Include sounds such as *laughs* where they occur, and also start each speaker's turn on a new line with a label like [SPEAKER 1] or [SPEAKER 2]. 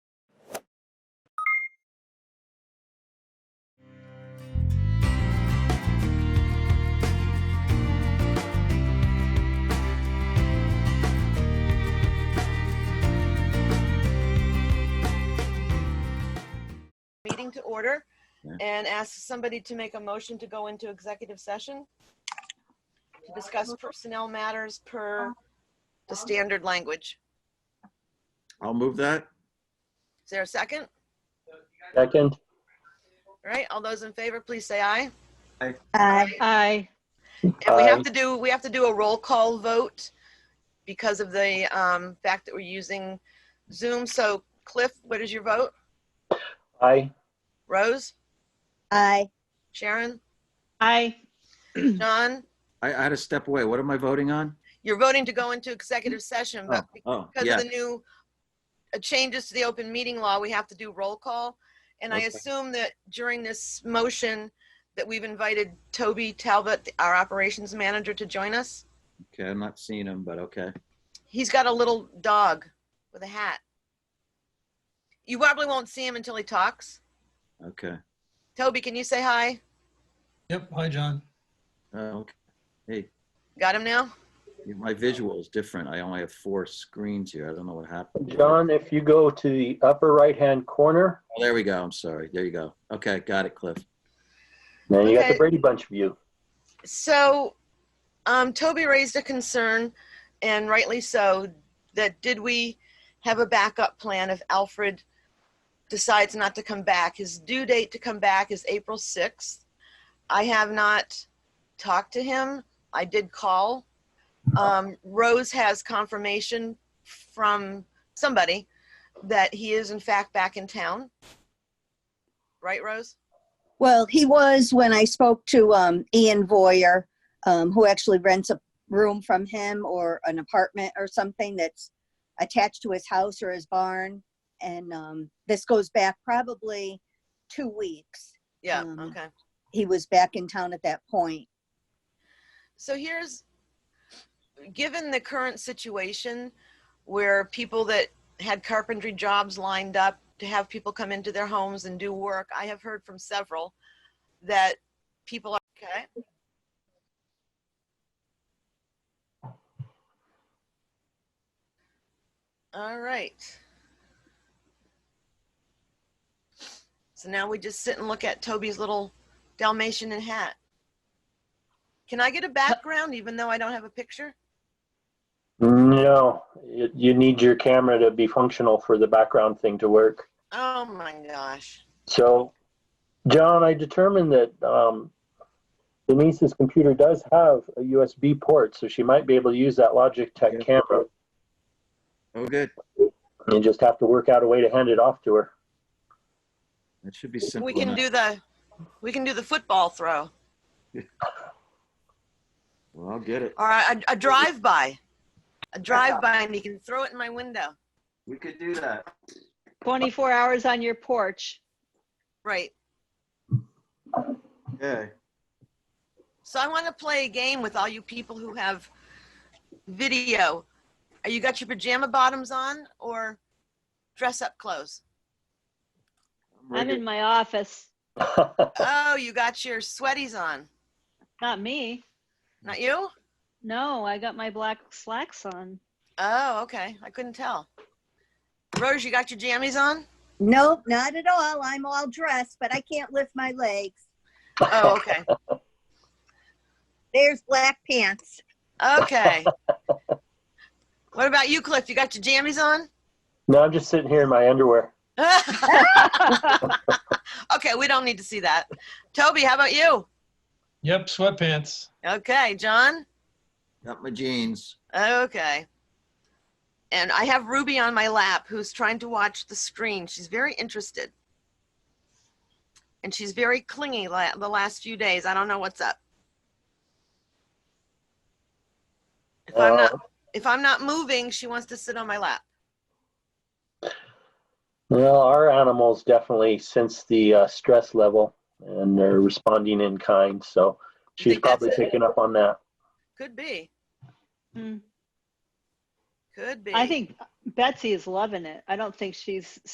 [SPEAKER 1] meeting to order
[SPEAKER 2] Yeah.
[SPEAKER 1] and ask somebody to make a motion to go into executive session to discuss personnel matters per the standard language.
[SPEAKER 2] I'll move that.
[SPEAKER 1] Is there a second?
[SPEAKER 3] Second,
[SPEAKER 1] All right, all those in favor, please say aye.
[SPEAKER 4] Aye.
[SPEAKER 5] Aye.
[SPEAKER 1] And we have
[SPEAKER 3] Aye.
[SPEAKER 1] to do, we have to do a roll call vote because of the um, fact that we're using Zoom. So Cliff, what is your vote?
[SPEAKER 3] aye.
[SPEAKER 1] Rose?
[SPEAKER 4] Aye.
[SPEAKER 2] *clears throat*
[SPEAKER 1] Sharon?
[SPEAKER 5] Aye.
[SPEAKER 1] John?
[SPEAKER 2] I, I had to step away. What am I voting on?
[SPEAKER 1] You're voting to go into executive session,
[SPEAKER 2] Oh,
[SPEAKER 1] but
[SPEAKER 2] oh,
[SPEAKER 1] because of
[SPEAKER 2] yeah.
[SPEAKER 1] the new uh, changes to the open meeting law, we have to do roll call. And I
[SPEAKER 2] Okay.
[SPEAKER 1] assume that during this motion that we've invited Toby Talbot, our operations manager, to join us.
[SPEAKER 2] Okay, I'm not seeing him, but okay.
[SPEAKER 1] He's got a little dog with a hat. You probably won't see him until he talks.
[SPEAKER 2] Okay.
[SPEAKER 1] Toby, can you say hi?
[SPEAKER 6] Yep. Hi, John.
[SPEAKER 2] Uh, okay. Hey,
[SPEAKER 1] Got him now?
[SPEAKER 2] my visual is different. I only have four screens here. I don't know what happened.
[SPEAKER 3] John, if you go to the upper right-hand corner,
[SPEAKER 2] Oh, there we go. I'm sorry. There you go. Okay, got it, Cliff.
[SPEAKER 3] now you got
[SPEAKER 1] Okay.
[SPEAKER 3] the Brady Bunch view.
[SPEAKER 1] So, um, Toby raised a concern, and rightly so, that did we have a backup plan if Alfred decides not to come back? His due date to come back is April 6th. I have not talked to him. I did call. Um, Rose has confirmation from somebody that he is in fact back in town. Right, Rose?
[SPEAKER 4] Well, he was when I spoke to um, Ian Voyer, um, who actually rents a room from him or an apartment or something that's attached to his house or his barn. And um, this goes back probably two weeks.
[SPEAKER 1] Yeah,
[SPEAKER 4] Um,
[SPEAKER 1] okay.
[SPEAKER 4] He was back in town at that point.
[SPEAKER 1] So here's, given the current situation where people that had carpentry jobs lined up to have people come into their homes and do work, I have heard from several that people are, okay. All right. So now we just sit and look at Toby's little Dalmatian and hat. Can I get a background even though I don't have a picture?
[SPEAKER 3] No, you you need your camera to be functional for the background thing to work.
[SPEAKER 1] Oh my gosh.
[SPEAKER 3] So, John, I determined that um, Denise's computer does have a USB port, so she might be able to use that
[SPEAKER 2] Yeah.
[SPEAKER 3] Logitech camera.
[SPEAKER 2] Oh, good.
[SPEAKER 3] You just have to work out a way to hand it off to her. *laughs*
[SPEAKER 2] That should be simple.
[SPEAKER 1] We can
[SPEAKER 2] enough.
[SPEAKER 1] do the we can do the football throw.
[SPEAKER 2] Well, I'll get it.
[SPEAKER 1] All right, a, a drive by. A drive by and you can throw it in my window.
[SPEAKER 2] We could do that.
[SPEAKER 5] 24 hours on your porch.
[SPEAKER 1] Right.
[SPEAKER 2] Okay.
[SPEAKER 1] So I want to play a game with all you people who have video. Are you got your pajama bottoms on or dress up clothes?
[SPEAKER 5] I'm in my office.
[SPEAKER 1] Oh, you got your sweaties on.
[SPEAKER 5] Not me.
[SPEAKER 1] Not you?
[SPEAKER 5] No, I got my black slacks on.
[SPEAKER 1] Oh, okay. I couldn't tell. Rose, you got your jammies on?
[SPEAKER 4] Nope, not at all. I'm all dressed, but I can't lift my legs.
[SPEAKER 1] Oh, okay.
[SPEAKER 4] There's black pants.
[SPEAKER 1] Okay. what about you, Cliff? You got your jammies on?
[SPEAKER 3] no, I'm just sitting here in my underwear.
[SPEAKER 1] okay, we don't need to see that. Toby, how about you?
[SPEAKER 6] Yep. Sweatpants.
[SPEAKER 1] Okay, John?
[SPEAKER 2] Got my jeans.
[SPEAKER 1] Okay. And I have Ruby on my lap who's trying to watch the screen. She's very interested. And she's very clingy la- the last few days. I don't know what's up. If I'm
[SPEAKER 3] Uh,
[SPEAKER 1] not if I'm not moving, she wants to sit on my lap.
[SPEAKER 3] Well, our animals definitely sense the uh, stress level and they're responding in kind.
[SPEAKER 1] You
[SPEAKER 3] So she's
[SPEAKER 1] think that's
[SPEAKER 3] probably
[SPEAKER 1] it?
[SPEAKER 3] picking up on that.
[SPEAKER 1] Could be.
[SPEAKER 5] Mm.
[SPEAKER 1] Could be.
[SPEAKER 5] I think Betsy is loving it. I don't think she's